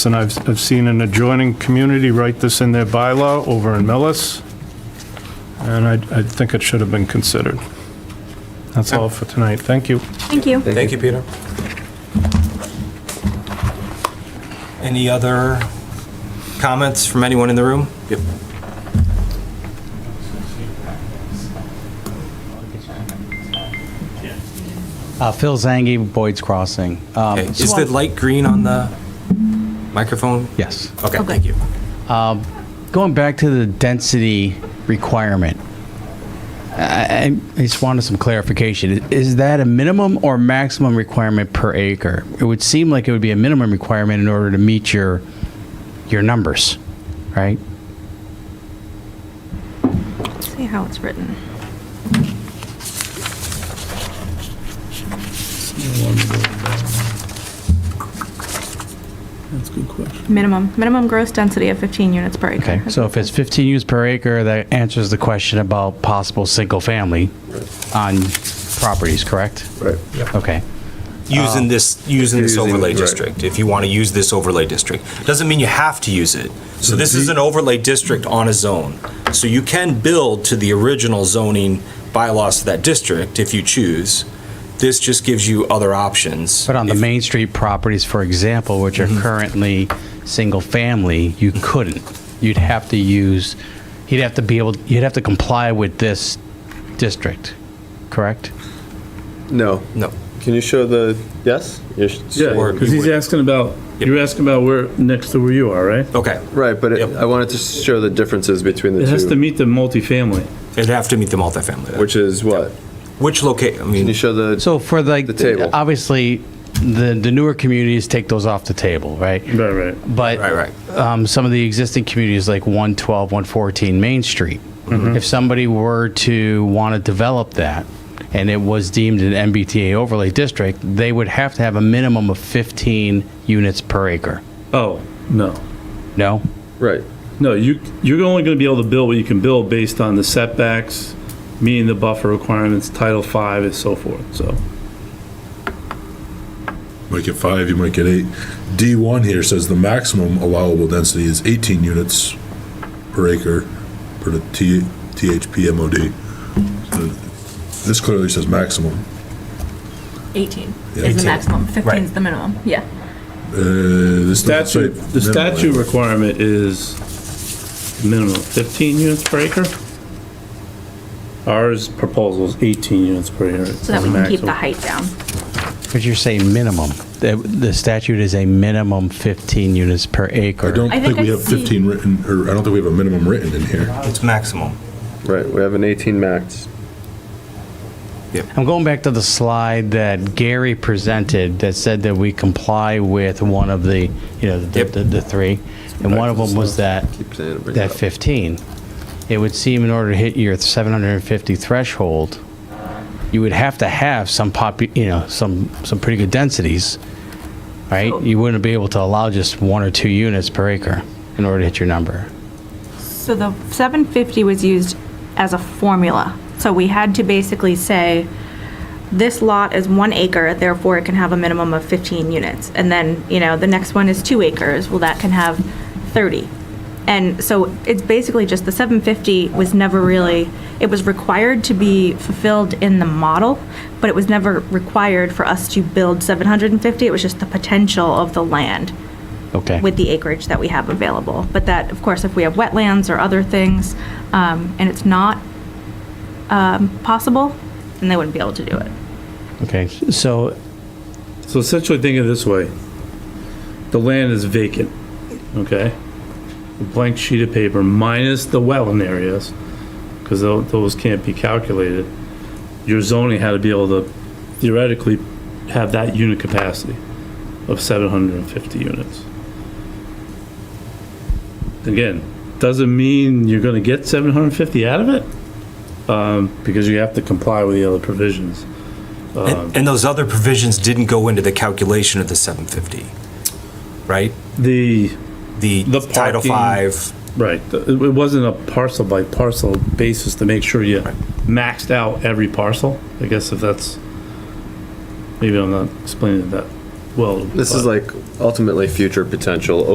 And I've, I've seen an adjoining community write this in their bylaw over in Millis, and I, I think it should have been considered. That's all for tonight. Thank you. Thank you. Thank you, Peter. Any other comments from anyone in the room? Yep. Uh, Phil Zangi, Boyd's Crossing. Um, Okay, Is the light green on the microphone? Yes. Okay, thank you. Going back to the density requirement, I, I I just wanted some clarification. Is that a minimum or maximum requirement per acre? It would seem like it would be a minimum requirement in order to meet your, your numbers, right? See how it's written. That's a good question. Minimum, minimum gross density of 15 units per acre. Okay, so if it's 15 units per acre, that answers the question about possible single-family on properties, correct? Right. Okay. Using this, Uh, using this Using- overlay right. district, if you want to use this overlay district. Doesn't mean you have to use it. So this is an overlay district on a zone. So you can build to the original zoning bylaws to that district if you choose. This just gives you other options. But on the if- Main Street properties, for example, which are currently single-family, you couldn't. You'd have to use, you'd have to be able, you'd have to comply with this district, correct? No. No. Can you show the, yes? You're sh- Or- Because he's asking about, you're asking about where, next to where you are, right? Okay, Right, but it- Yep. I wanted to show the differences between the It has to two, meet the multifamily. it'd have to meet the multifamily. which is what? Which locate, I Can you mean, show the, So for like, The table. obviously, the, the newer communities take those off the table, right? Right, right. But Right, Um, some of the existing communities like 112, 114 Main Street, if somebody were to want to develop that and it was deemed an MBTA overlay district, they would have to have a minimum of 15 units per acre. Oh, no. No? right, No, you, you're only going to be able to build what you can build based on the setbacks, meeting the buffer requirements, Title V and so forth, so. might get five, you might get eight. D1 here says the maximum allowable density is 18 units per acre per the T- THP MOD. So This clearly says maximum. 18 Yeah. is the maximum, 15 Right. is the minimum, yeah. Uh, This doesn't say Statute, the minimum. statute requirement is minimum 15 units per acre. Ours proposal is 18 units per acre. So that we can keep the height down. But you're saying minimum. The, the statute is a minimum 15 units per acre. I don't I think think we I have see- 15 written, or I don't think we have a minimum written in here. it's maximum. right, we have an 18 max. I'm going back to the slide that Gary presented that said that we comply with one of the, you know, the, Yep. the, the three. And one of them was that, Keep saying it, bring it that up. 15. It would seem in order to hit your 750 threshold, you would have to have some pop, you know, some, some pretty good densities, right? You wouldn't be able to allow just one or two units per acre in order to hit your number. So the 750 was used as a formula. So we had to basically say, this lot is one acre, therefore it can have a minimum of 15 units. And then, you know, the next one is two acres, well, that can have 30. And so it's basically just the 750 was never really, it was required to be fulfilled in the model, but it was never required for us to build 750. It was just the potential of the land Okay. with the acreage that we have available. But that, of course, if we have wetlands or other things, um, and it's not um, possible, then they wouldn't be able to do it. Okay, so So essentially, think of it this way. The land is vacant, okay? A blank sheet of paper minus the wetland areas, because those can't be calculated. Your zoning had to be able to theoretically have that unit capacity of 750 units. Again, doesn't mean you're gonna get 750 out of it, um, because you have to comply with the other provisions. Um, And and those other provisions didn't go into the calculation of the 750, right? The The The Title parking- V, Right, th- it it wasn't a parcel by parcel basis to make sure you maxed out every parcel, I guess if that's, maybe I'm not explaining it that well. This is but- like ultimately future potential